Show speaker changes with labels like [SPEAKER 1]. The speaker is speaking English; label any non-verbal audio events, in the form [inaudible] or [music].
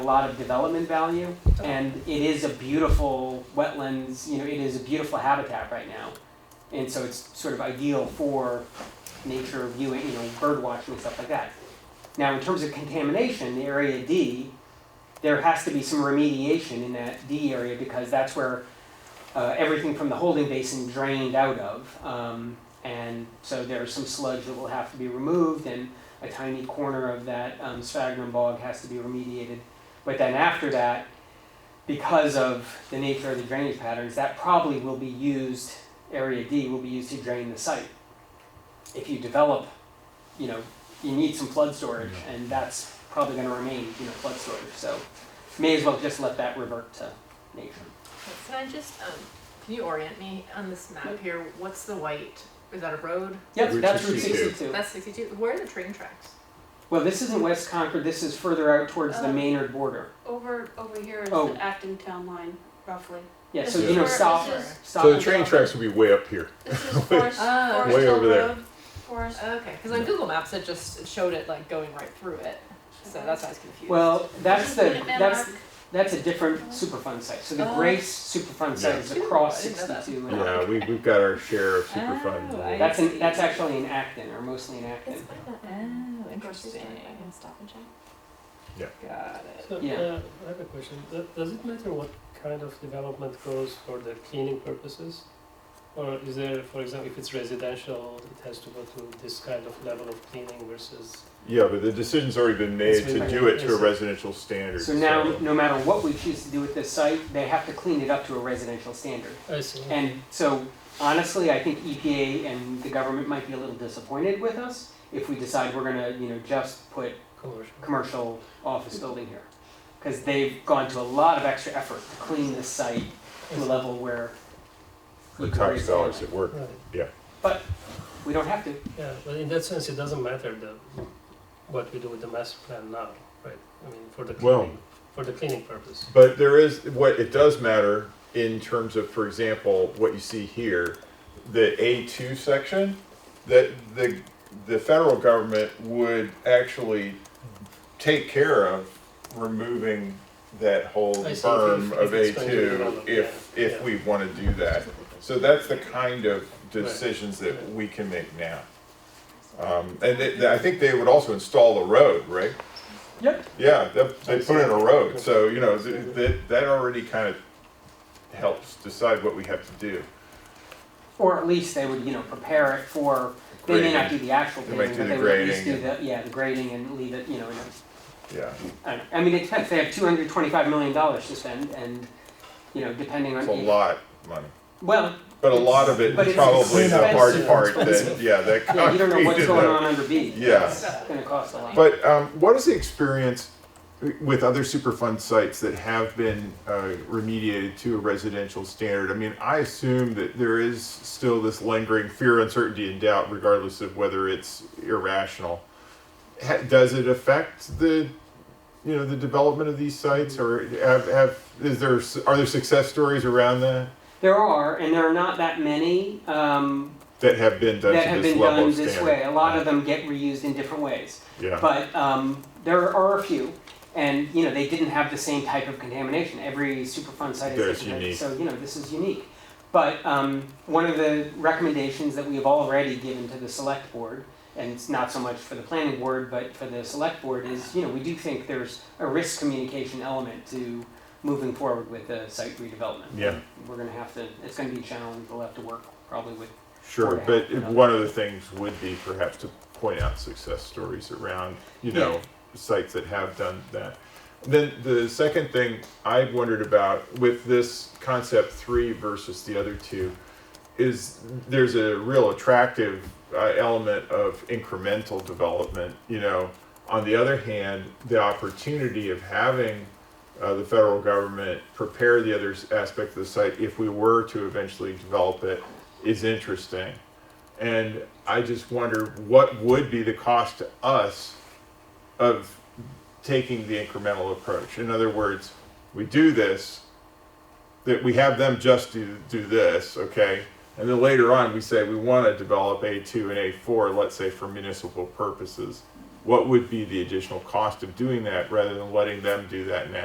[SPEAKER 1] a lot of development value, and it is a beautiful wetlands, you know, it is a beautiful habitat right now. And so it's sort of ideal for nature viewing, you know, bird watching and stuff like that. Now, in terms of contamination, the area D, there has to be some remediation in that D area because that's where uh, everything from the holding basin drained out of. Um, and so there's some sludge that will have to be removed, and a tiny corner of that um, sphagnum bog has to be remediated. But then after that, because of the nature of the drainage patterns, that probably will be used, area D will be used to drain the site. If you develop, you know, you need some flood storage, and that's probably gonna remain, you know, flood storage, so may as well just let that revert to nature.
[SPEAKER 2] Okay, Can I just, um, can you orient me on this map here? What's the white? Is that a road?
[SPEAKER 1] Yep,
[SPEAKER 3] Route
[SPEAKER 1] that's Route
[SPEAKER 3] 62.
[SPEAKER 1] sixty-two.
[SPEAKER 2] That's sixty-two. Where are the train tracks?
[SPEAKER 1] Well, this isn't West Concord, this is further out towards the
[SPEAKER 4] Oh.
[SPEAKER 1] Maynard border.
[SPEAKER 4] Over, over here is
[SPEAKER 1] Oh.
[SPEAKER 4] the Acton town line, roughly.
[SPEAKER 1] Yeah,
[SPEAKER 4] This
[SPEAKER 1] so
[SPEAKER 3] is
[SPEAKER 1] you know,
[SPEAKER 3] where-
[SPEAKER 4] this
[SPEAKER 1] south,
[SPEAKER 4] is-
[SPEAKER 1] south.
[SPEAKER 3] So the train tracks would be [laughs] way up here.
[SPEAKER 4] This is Forest, Forest
[SPEAKER 2] Oh.
[SPEAKER 3] Way
[SPEAKER 4] Hill
[SPEAKER 3] over there.
[SPEAKER 4] Road, Forest.
[SPEAKER 2] Okay, because on Google Maps it just showed it like going right through it, so that's why I was confused.
[SPEAKER 1] Well, that's
[SPEAKER 4] This is
[SPEAKER 1] the,
[SPEAKER 4] Minuteman
[SPEAKER 1] that's,
[SPEAKER 4] Arc.
[SPEAKER 1] that's a different Superfund site. So the
[SPEAKER 2] Oh.
[SPEAKER 1] Grace Superfund site is
[SPEAKER 2] Yeah.
[SPEAKER 1] across
[SPEAKER 2] I didn't know that.
[SPEAKER 1] 62. and
[SPEAKER 3] Yeah, we, we've got our share of super
[SPEAKER 2] Oh, I-
[SPEAKER 3] fun.
[SPEAKER 1] That's, in, that's actually in Acton, or mostly in Acton.
[SPEAKER 2] Oh,
[SPEAKER 4] Grocery store,
[SPEAKER 2] interesting.
[SPEAKER 4] I can stop and check.
[SPEAKER 2] Got it.
[SPEAKER 5] So,
[SPEAKER 1] Yeah.
[SPEAKER 5] uh, I have a question. Th- Does it matter what kind of development goes for the cleaning purposes? Or is there, for example, if it's residential, it has to go through this kind of level of cleaning versus,
[SPEAKER 3] Yeah, but the decision's already been made
[SPEAKER 5] It's
[SPEAKER 3] to
[SPEAKER 5] been
[SPEAKER 3] do it to a
[SPEAKER 5] made.
[SPEAKER 3] residential standard.
[SPEAKER 1] So now, no matter what we choose to do with this site, they have to clean it up to a residential standard.
[SPEAKER 5] I see.
[SPEAKER 1] And so, honestly, I think EPA and the government might be a little disappointed with us if we decide we're gonna, you know, just put
[SPEAKER 5] commercial?
[SPEAKER 1] commercial office building here. Because they've gone to a lot of extra effort to clean this site to a level where E
[SPEAKER 3] The
[SPEAKER 1] we can
[SPEAKER 3] tax
[SPEAKER 1] raise
[SPEAKER 3] dollars
[SPEAKER 1] the-
[SPEAKER 3] at work.
[SPEAKER 5] Right,
[SPEAKER 1] We don't have to.
[SPEAKER 5] yeah, but in that sense, it doesn't matter the, what we do with the master plan now, right? I mean, for the
[SPEAKER 3] Well-
[SPEAKER 5] cleaning, for the cleaning purpose.
[SPEAKER 3] But there is, what, it does matter in terms of, for example, what you see here, the A2 section, that the, the federal government would actually take care of removing that whole
[SPEAKER 5] I see, if- if
[SPEAKER 3] berm of
[SPEAKER 5] it's going to be
[SPEAKER 3] A2
[SPEAKER 5] relevant,
[SPEAKER 3] if,
[SPEAKER 5] yeah,
[SPEAKER 3] if
[SPEAKER 5] yeah.
[SPEAKER 3] we want to do that. So that's the kind of
[SPEAKER 5] Right.
[SPEAKER 3] decisions that we can make now. Um, and they, they- I think they would also install the road, right?
[SPEAKER 1] Yep.
[SPEAKER 3] Yeah, they, they put in a road, so, you know, th- that, that already kind of helps decide what we have to do.
[SPEAKER 1] Or at least they would, you know, prepare it for, they may not do the actual
[SPEAKER 3] They might
[SPEAKER 1] paving, but
[SPEAKER 3] do the
[SPEAKER 1] they would at least do
[SPEAKER 3] grading
[SPEAKER 1] the, yeah, the grading and leave it, you know, in a,
[SPEAKER 3] Yeah,
[SPEAKER 1] I don't know. I mean, it depends, they have two hundred twenty-five million dollars to spend and, you know, depending on.
[SPEAKER 3] it's a lot of money,
[SPEAKER 1] Well,
[SPEAKER 3] but a lot of it
[SPEAKER 1] But
[SPEAKER 3] is
[SPEAKER 1] it's-
[SPEAKER 3] probably the
[SPEAKER 5] it's
[SPEAKER 3] hard
[SPEAKER 5] expensive.
[SPEAKER 3] part that,
[SPEAKER 5] Expensive.
[SPEAKER 3] yeah, that
[SPEAKER 1] yeah, you don't
[SPEAKER 3] [laughs]
[SPEAKER 1] know
[SPEAKER 3] concrete
[SPEAKER 1] what's
[SPEAKER 3] is
[SPEAKER 1] going
[SPEAKER 3] a-
[SPEAKER 1] on under B.
[SPEAKER 3] Yeah.
[SPEAKER 1] It's gonna cost a lot.
[SPEAKER 3] But um, what is the experience with other Superfund sites that have been uh, remediated to a residential standard? I mean, I assume that there is still this lingering fear, uncertainty, and doubt, regardless of whether it's irrational. Ha- does it affect the, you know, the development of these sites, or have, have is there are there success stories around that
[SPEAKER 1] There are, and there are not that many, um,
[SPEAKER 3] that have been done
[SPEAKER 1] that
[SPEAKER 3] to
[SPEAKER 1] have
[SPEAKER 3] this
[SPEAKER 1] been
[SPEAKER 3] level
[SPEAKER 1] done
[SPEAKER 3] of
[SPEAKER 1] this
[SPEAKER 3] standard?
[SPEAKER 1] way. A lot of them get reused in different ways.
[SPEAKER 3] yeah.
[SPEAKER 1] But um, there are a few, and you know they didn't have the same type of contamination. Every Superfund site
[SPEAKER 3] There's
[SPEAKER 1] is different,
[SPEAKER 3] unique.
[SPEAKER 1] so you know this is unique. But um, one of the recommendations that we have already given to the select board, and it's not so much for the planning board, but for the select board, is you know we do think there's a risk communication element to moving forward with the site redevelopment.
[SPEAKER 3] Yeah.
[SPEAKER 1] we're gonna have to. It's gonna be a challenge. We'll have to work probably with
[SPEAKER 3] Sure,
[SPEAKER 1] Or
[SPEAKER 3] but
[SPEAKER 1] half,
[SPEAKER 3] if
[SPEAKER 1] you know.
[SPEAKER 3] one of the things would be perhaps to point out success stories around, you know, sites that have done that. Then the second thing I've wondered about with this concept three versus the other two is there's a real attractive uh, element of incremental development. You know, on the other hand, the opportunity of having uh, the federal government prepare the other s- aspect of the site if we were to eventually develop it is interesting. And I just wonder what would be the cost to us of taking the incremental approach. In other words, we do this, that we have them just do, do this, okay? And then later on, we say we want to develop A2 and A4, let's say for municipal purposes. what would be the additional cost of doing that rather than letting them do that now?